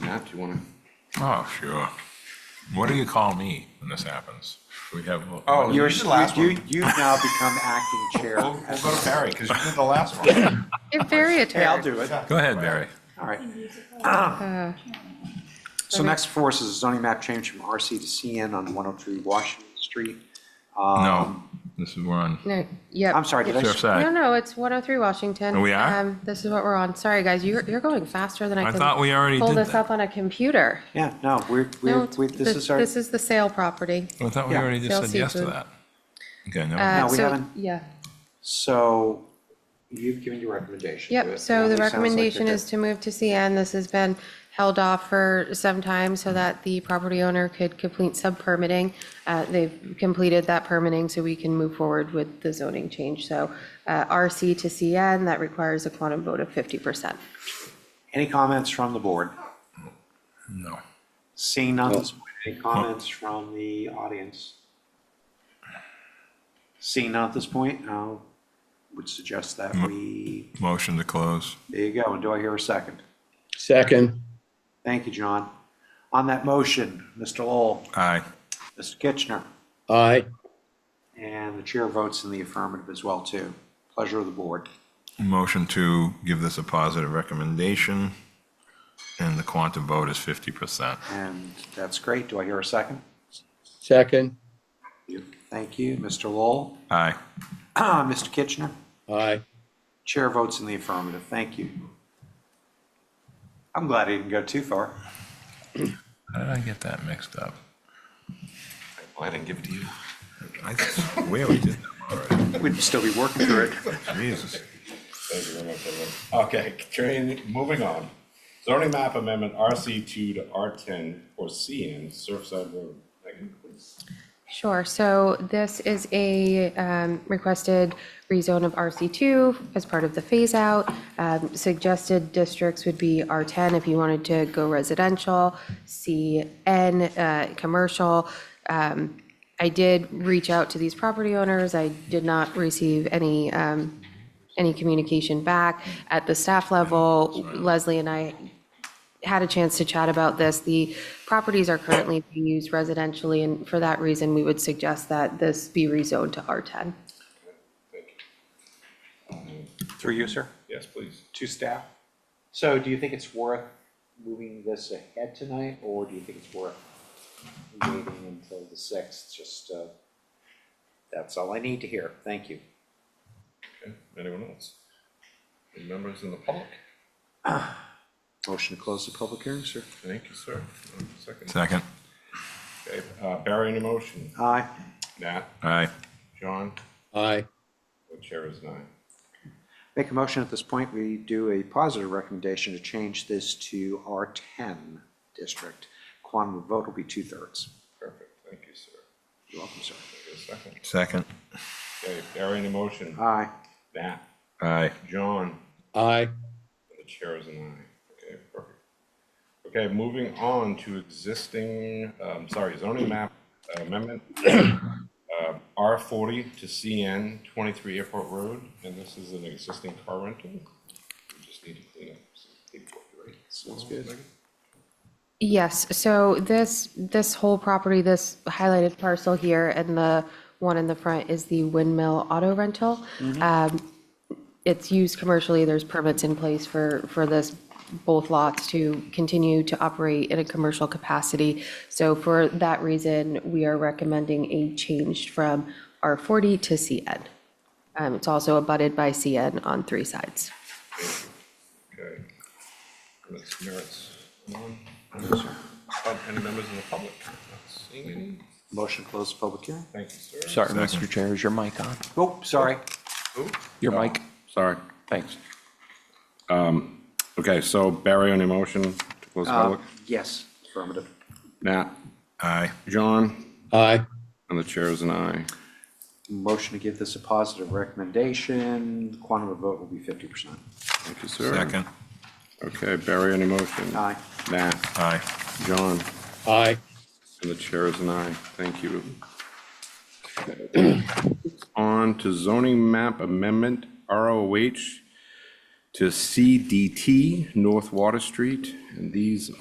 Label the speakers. Speaker 1: Matt, you want to?
Speaker 2: Oh, sure. What do you call me when this happens? We have.
Speaker 3: Oh,
Speaker 2: you're
Speaker 3: You're- the last
Speaker 1: you-
Speaker 3: one.
Speaker 1: you- You've now become acting chair.
Speaker 3: We'll, we'll go to Barry, because you did the last one.
Speaker 4: You're very
Speaker 1: Hey, I'll
Speaker 4: attorney.
Speaker 1: do it.
Speaker 2: Go ahead, Barry.
Speaker 1: All right. So next for us is a zoning map change from RC to CN on 103 Washington Street.
Speaker 2: No, this is, we're on
Speaker 4: No, yep.
Speaker 1: I'm sorry, did I?
Speaker 4: Um, No,
Speaker 2: Surfside.
Speaker 4: no, it's 103 Washington.
Speaker 2: Oh, we are?
Speaker 4: Um, This is what we're on. Sorry, guys, you're, you're going faster than I
Speaker 2: I
Speaker 4: can.
Speaker 2: thought we already
Speaker 4: Pull
Speaker 2: did
Speaker 4: this
Speaker 2: that.
Speaker 4: up on a computer.
Speaker 1: Yeah, no, we're,
Speaker 4: No,
Speaker 1: we're,
Speaker 4: it's-
Speaker 1: we- this is our,
Speaker 4: This is the sale property.
Speaker 2: I thought we
Speaker 1: Yeah.
Speaker 2: already just
Speaker 4: Sell
Speaker 2: said yes to
Speaker 4: seafood.
Speaker 2: that. Okay, no,
Speaker 4: Uh,
Speaker 1: we
Speaker 4: so-
Speaker 1: haven't.
Speaker 4: Yeah,
Speaker 1: so you've given your recommendation. to
Speaker 4: yep.
Speaker 1: it.
Speaker 4: So the
Speaker 1: It sounds like you're
Speaker 4: recommendation
Speaker 1: good.
Speaker 4: is to move to CN. This has been held off for some time so that the property owner could complete sub-permitting. Uh, They've completed that permitting, so we can move forward with the zoning change. So uh, RC to CN, that requires a quantum vote of 50%.
Speaker 1: Any comments from the board?
Speaker 2: no.
Speaker 1: Seeing none, this morning, any comments from the audience? Seeing none at this point, I would suggest that we,
Speaker 2: Motion to close.
Speaker 1: there you go, and do I hear a second?
Speaker 5: Second,
Speaker 1: Thank you, John. On that motion, Mr. Lowell,
Speaker 2: Aye.
Speaker 1: Mr. Kitchener,
Speaker 5: aye.
Speaker 1: and the chair votes in the affirmative as well, too. Pleasure of the board.
Speaker 2: Motion to give this a positive recommendation, and the quantum vote is 50%.
Speaker 1: And that's great. Do I hear a second?
Speaker 5: Second,
Speaker 1: Thank you, Mr. Lowell,
Speaker 2: Aye.
Speaker 1: Mr. Kitchener.
Speaker 5: aye.
Speaker 1: Chair votes in the affirmative. Thank you. I'm glad I didn't go too far.
Speaker 2: How did I get that mixed up?
Speaker 3: Well, I didn't give it to you.
Speaker 2: I swear we did that already.
Speaker 1: We'd still be working through it.
Speaker 2: Jesus.
Speaker 3: Thank you very much, everyone. Okay, continuing- moving on. Zoning map amendment RC two to R ten or CN Surfside Road. Megan, please.
Speaker 4: Sure, so this is a um, requested rezone of RC2 as part of the phase-out. Um, Suggested districts would be R10 if you wanted to go residential, CN, uh, commercial. Um, I did reach out to these property owners, I did not receive any um, any communication back. At the staff level, Leslie and I had a chance to chat about this. The properties are currently being used residentially, and for that reason, we would suggest that this be rezoned to R10.
Speaker 3: Thank you.
Speaker 1: Through you, sir,
Speaker 3: Yes, please.
Speaker 1: to staff. So do you think it's worth moving this ahead tonight, or do you think it's worth waiting until the 6th? Just, uh, that's all I need to hear. Thank you.
Speaker 3: Okay, anyone else? Any members in the public?
Speaker 1: Motion to close the public hearing, sir.
Speaker 3: Thank you, sir. One Second.
Speaker 2: Second.
Speaker 3: Okay, uh, Barry, any motion?
Speaker 1: Aye.
Speaker 3: Nat,
Speaker 2: Aye.
Speaker 3: John,
Speaker 5: Aye.
Speaker 3: the chair is nine.
Speaker 1: Make a motion at this point, we do a positive recommendation to change this to R10 district. Quantum of vote will be two-thirds.
Speaker 3: Perfect, thank you, sir.
Speaker 1: You're welcome, sir.
Speaker 3: Take a second.
Speaker 2: Second.
Speaker 3: Okay, Barry, any motion?
Speaker 1: Aye.
Speaker 3: Nat,
Speaker 2: Aye.
Speaker 3: John,
Speaker 5: Aye.
Speaker 3: The chair is an aye. Okay, perfect. Okay, moving on to existing, um, sorry, zoning map uh, amendment. Uh, R forty to CN twenty-three Airport Road, and this is an existing car rental. We just need to clean up some paperwork, right? Sounds good.
Speaker 4: Yes, so this, this whole property, this highlighted parcel here and the one in the front is the windmill auto rental. Um, It's used commercially, there's permits in place for, for this, both lots to continue to operate in a commercial capacity. So for that reason, we are recommending a change from R40 to CN. Um, It's also abutted by CN on three sides.
Speaker 3: Okay. Ms. Merritt's on. Um, Any members in the public? Not seeing any.
Speaker 1: Motion to close the public hearing.
Speaker 3: Thank you, sir.
Speaker 6: Sorry, Mr. Chair, is your mic on?
Speaker 1: Oh, sorry.
Speaker 3: Ooh.
Speaker 6: Your mic? Sorry, thanks.
Speaker 3: Um, Okay, so Barry, on your motion to close the
Speaker 1: Uh,
Speaker 3: public?
Speaker 1: Um, Yes, affirmative.
Speaker 3: Nat?
Speaker 2: Aye.
Speaker 3: John?
Speaker 5: Aye.
Speaker 3: And the chair is an aye.
Speaker 1: Motion to give this a positive recommendation. The quantum of vote will be 50%.
Speaker 3: Thank you, sir.
Speaker 2: Second.
Speaker 3: Okay, Barry, any motion?
Speaker 1: Aye.
Speaker 3: Matt?
Speaker 2: Aye.
Speaker 3: John?
Speaker 5: Aye.
Speaker 3: And the chair is an aye. Thank you. On to zoning map amendment, ROH to CDT, North Water Street. And these